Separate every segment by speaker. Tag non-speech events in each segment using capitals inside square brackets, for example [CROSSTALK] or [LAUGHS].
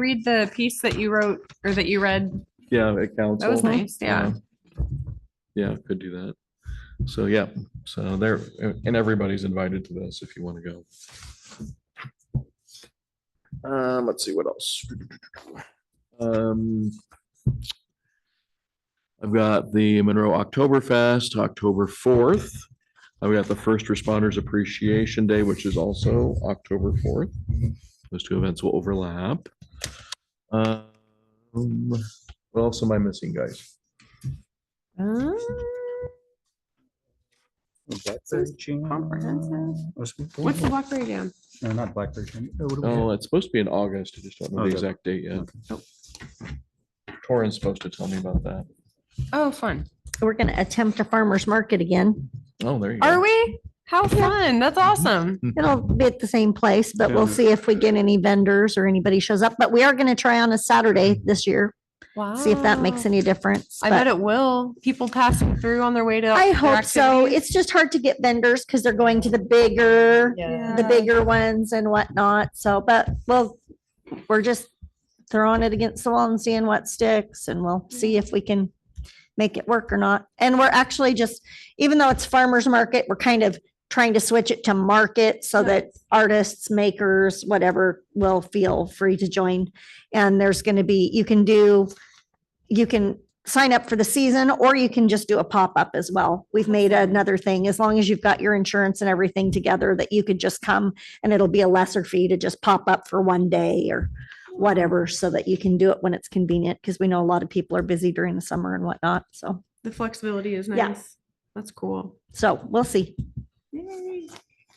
Speaker 1: read the piece that you wrote or that you read?
Speaker 2: Yeah, at council.
Speaker 1: That was nice, yeah.
Speaker 2: Yeah, could do that. So, yeah, so there, and everybody's invited to this if you want to go. Um, let's see what else. Um. I've got the Monroe Oktoberfest, October fourth. I've got the First Responders Appreciation Day, which is also October fourth. Those two events will overlap. Um, what else am I missing, guys?
Speaker 1: Um,
Speaker 3: Oh.
Speaker 4: Blackberry jam.
Speaker 1: Comprehensive?
Speaker 4: Or something.
Speaker 1: What's the Blackberry Jam?
Speaker 4: No, not blackberry jam. Uh, what do we have?
Speaker 2: Oh, it's supposed to be in August. I just don't know the
Speaker 4: Okay.
Speaker 2: exact date yet.
Speaker 1: Nope.
Speaker 2: Torrance supposed to tell me about that.
Speaker 1: Oh, fun.
Speaker 3: We're gonna attempt a farmer's market again.
Speaker 2: Oh, there you go.
Speaker 1: Are we? How fun. That's awesome.
Speaker 3: It'll be at the same place, but we'll
Speaker 4: Yeah.
Speaker 3: see if we get any vendors or anybody shows up. But we are gonna try on a Saturday this year,
Speaker 1: Wow.
Speaker 3: see if that makes any difference.
Speaker 1: Ah. I bet
Speaker 3: but
Speaker 1: it will. People passing through on their way to.
Speaker 3: I
Speaker 1: their
Speaker 3: hope so.
Speaker 1: activities.
Speaker 3: It's just hard to get vendors because they're going to the bigger,
Speaker 1: Yeah.
Speaker 3: the bigger ones and whatnot. So, but we'll, we're just throwing it against the wall and seeing what sticks and we'll see if we can make it work or not. And we're actually just, even though it's farmer's market, we're kind of trying to switch it to market so that artists, makers, whatever will feel free to join. And there's going to be, you can do, you can sign up for the season or you can just do a pop-up as well. We've made another thing, as long as you've got your insurance and everything together, that you could just come and it'll be a lesser fee to just pop up for one day or whatever, so that you can do it when it's convenient, because we know a lot of people are busy during the summer and whatnot. So,
Speaker 1: The flexibility is
Speaker 3: Yeah.
Speaker 1: nice. That's cool.
Speaker 3: so we'll see.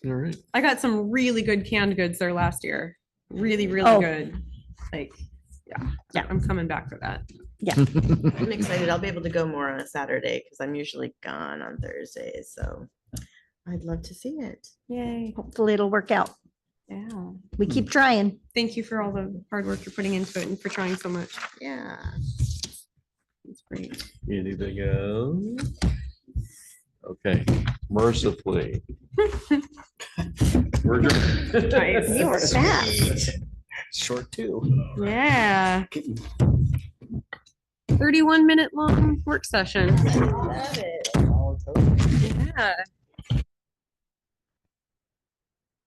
Speaker 2: All
Speaker 4: [LAUGHS]
Speaker 2: right.
Speaker 1: I got some really good canned goods there last year. Really, really
Speaker 3: Oh.
Speaker 1: good. Like, yeah,
Speaker 3: Yeah.
Speaker 1: I'm coming back for that.
Speaker 5: I'm excited. I'll be able to go more on a Saturday because I'm usually gone on Thursdays. So I'd love to see it.
Speaker 1: Yay.
Speaker 3: Hopefully it'll work out.
Speaker 1: Yeah.
Speaker 3: We keep trying.
Speaker 1: Thank you for all the hard work you're putting into it and for trying so much.
Speaker 5: Yeah.
Speaker 1: It's great.
Speaker 2: Anything else? Okay, mercifully.
Speaker 1: [LAUGHS]
Speaker 2: We're adjourned.
Speaker 1: Nice.
Speaker 2: [LAUGHS]
Speaker 3: You were fast.
Speaker 4: Short too.
Speaker 1: Yeah. Thirty-one minute long work session.
Speaker 5: Love it.
Speaker 1: Yeah.